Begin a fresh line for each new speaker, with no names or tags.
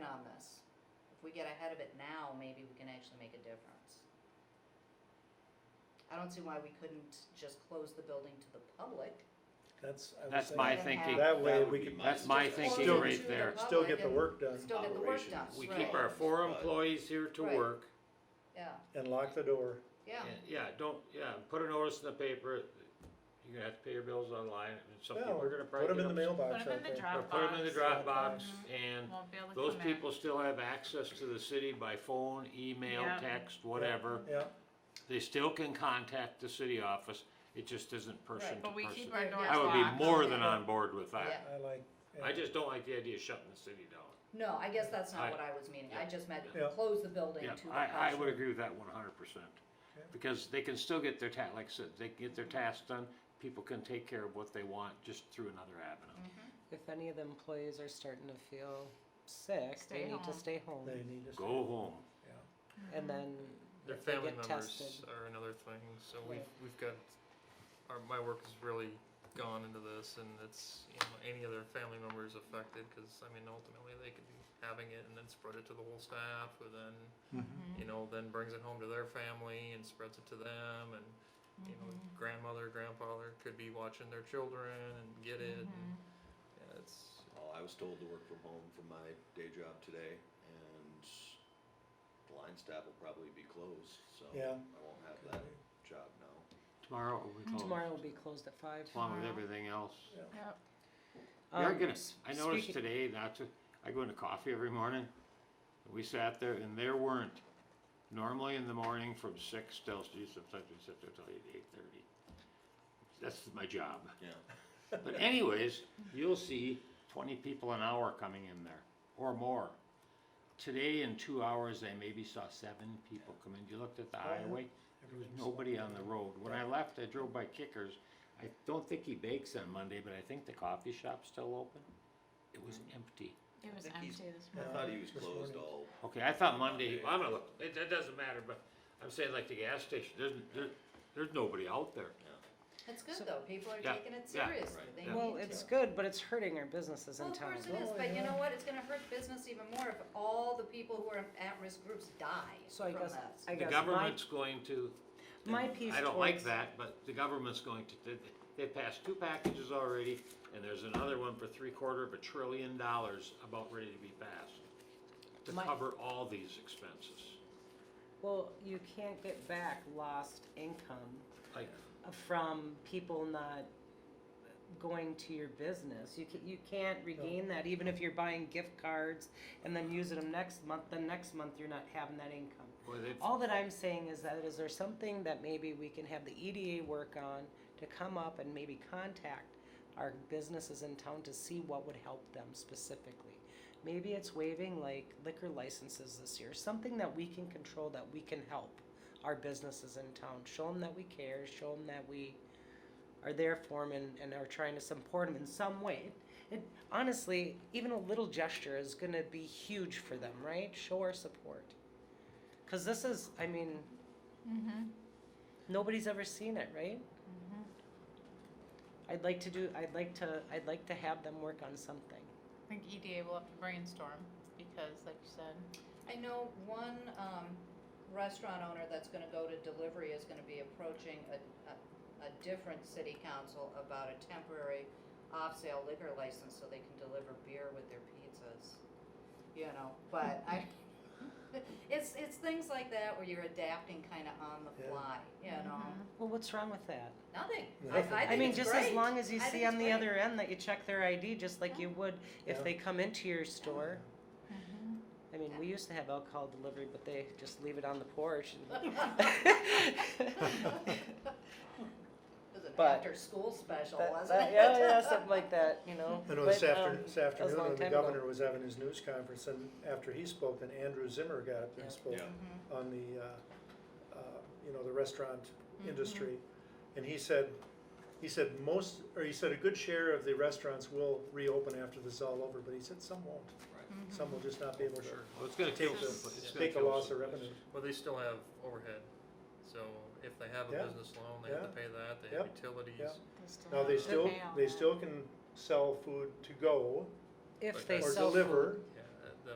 we get ahead of it now, maybe we can actually make a difference. I don't see why we couldn't just close the building to the public.
That's, I was
That's my
saying,
They have-
thinking.
that way
That would
we
be
could.
my
That's my
Or
thinking
Still-
right
to the
there.
Still get the
public
work
and
done
Still get the work done,
Operations.
We
right.
keep our four
Right.
employees here to
Right.
work.
Yeah,
and lock the door.
yeah,
And, Yeah, don't, yeah, put a notice in the paper, you're gonna have to pay your bills online, and some
Well,
people are gonna
put
probably.
them in the
get ups-
mailbox.
Put 'em in
I
the
think.
drop-
Or put them in the Dropbox,
Dropbox.
and
Won't be able to
those
come
people
in.
still have access to the city by phone, email,
Yeah.
text, whatever.
Yeah,
They still can contact the city office, it just isn't person
Right,
to
But we keep
person.
our
Yeah,
doors
yeah.
I would be
locked.
more than on board with that.
Yeah.
I like. yeah.
I just don't like the idea of shutting the city down.
no, I guess that's not
I-
what I was meaning, I just meant
Yeah.
close the building
Yeah,
to the public.
I, I would agree with that one hundred percent.
Okay.
Because they can still get their ta, like I said, they can get their tasks done, people can take care of what they want just through another avenue.
Mm-hmm.
If any of the employees are starting to feel sick,
Stay
they need
home.
to stay home.
They need to.
Go home.
Yeah.
And then
Their
if they
family
get
members
tested.
are another thing. So we've
Right.
we've got our my work has really gone into this, and it's you know any other family members affected because I mean ultimately they could be having it and then spread it to the whole staff, who then
Mm-hmm.
you know then brings it home to their family and spreads it to them, and you know
Mm-hmm.
grandmother, grandfather could be watching their children and get
Mm-hmm.
it. And,
Mm-hmm.
yeah, it's
Well, I was told to work from home from my day job today, and the line staff will probably be closed, so
Yeah.
I won't have that job now.
Tomorrow we close.
Tomorrow will be closed at five.
Along with everything else.
Yep.
We are
Um,
gonna, I noticed
speaking-
today, not to, I go into coffee every morning. We sat there and there weren't, normally in the morning from six till, geez, sometimes we sit there till eight, eight thirty. That's my job.
Yeah.
But anyways, you'll see twenty people an hour coming in there or more. Today in two hours, they maybe saw seven people come in. You looked at the highway, there was nobody on the road. When I left, I drove by Kickers. I don't think he bakes on Monday, but I think the coffee shop's still open. It was empty.
It was
I think
empty
he's-
this
I
morning.
thought he was
This
closed
morning.
all.
Okay, I thought Monday, I'm gonna look, it, that doesn't matter, but I'm saying like the gas station, there's, there, there's nobody out there.
Yeah.
It's good though, people are
Yeah,
taking it
yeah,
seriously,
right,
they need
yeah.
to.
Well, it's good, but it's hurting our businesses
Well,
in
of course it
town.
is,
Oh,
but you
yeah.
know what, it's gonna hurt business even more if all the people who are at-risk groups die
So I
from
guess,
this.
I
The
guess my,
government's going to,
my piece.
I don't like
towards-
that, but the government's going to, they, they passed two packages already, and there's another one for three quarter of a trillion dollars about ready to be passed to
My-
cover all these expenses.
Well, you can't get back lost income
Like,
from people not going to your business. You can, you can't regain that even if you're buying gift cards and then using them next month. Then next month you're not having that income.
boy, they've,
All that I'm saying is that is there something that maybe we can have the EDA work on to come up and maybe contact our businesses in town to see what would help them specifically. Maybe it's waiving like liquor licenses this year, something that we can control that we can help our businesses in town. Show them that we care, show them that we are there for them and, and are trying to support them in some way. It, honestly, even a little gesture is going to be huge for them, right? Show our support. Because this is, I mean,
Mm-hmm.
nobody's ever seen it, right? I'd like to do. I'd like to. I'd like to have them work on something.
I think EDA will have to brainstorm because, like you said,
I know one um, restaurant owner that's gonna go to delivery is gonna be approaching a, a, a different city council about a temporary off-sale liquor license so they can deliver beer with their pizzas. You know, but I, it's, it's things like that where you're adapting kinda on the
Yeah.
fly, you know?
Well, what's wrong with that?
Nothing.
Nothing.
I, I think
mean,
it's
just as
great.
long as you
I
see
think
on
it's
the
great.
other end that you check their ID, just like you would if
Yeah.
they come into your store.
Mm-hmm.
I mean, we
Yeah.
used to have alcohol delivery, but they just leave it on the porch. And
It was an
But-
after-school special,
that-
wasn't
that-
it?
yeah, yeah, something like that, you know.
I know
But,
this afternoon,
um,
this
that was a long
afternoon, the
time ago.
governor was having his news conference, and after he spoke, then Andrew Zimmer got up
Yeah.
and spoke
Yeah.
Mm-hmm.
on the, uh, uh, you know, the restaurant
Mm-hmm.
industry. And he said, he said most, or he said a good share of the restaurants will reopen after this is all over, but he said some won't.
Right.
Mm-hmm.
Some will just not be able to
Sure.
well, it's gonna kill them, it's gonna
take a
kill
loss of
some-
revenue.
Well, they still have overhead. So if they have a
Yeah.
business loan, they have
Yeah.
to pay that. They have
Yep.
utilities.
Yeah.
they still
Now, they
have to
still,
pay all
they
that.
still can sell food to go
if
They
they
or
sell
deliver.
food.
Yeah.